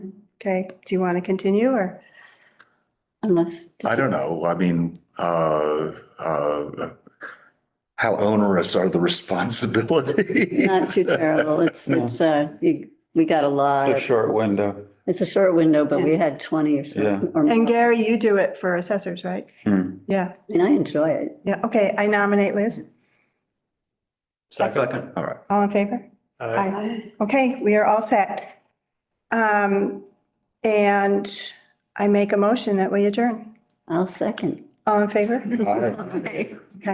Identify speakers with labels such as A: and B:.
A: Okay, do you want to continue or?
B: Unless.
C: I don't know. I mean, uh, uh, how onerous are the responsibilities?
B: Not too terrible. It's,
D: No.
B: it's, uh, you- we got a lot.
D: It's a
B: of-
D: short window.
B: It's a short window, but we had 20 or
D: Yeah.
B: so. or more.
A: And Gary, you do it for assessors, right?
D: Hmm.
A: Yeah,
B: And I enjoy it.
A: yeah, okay, I nominate Liz.
D: Second.
C: All right.
A: All in favor?
E: Aye.
A: Okay, we are all set. Um, and I make a motion that we adjourn.
B: I'll second.
A: All in favor?
D: Aye.
B: Okay.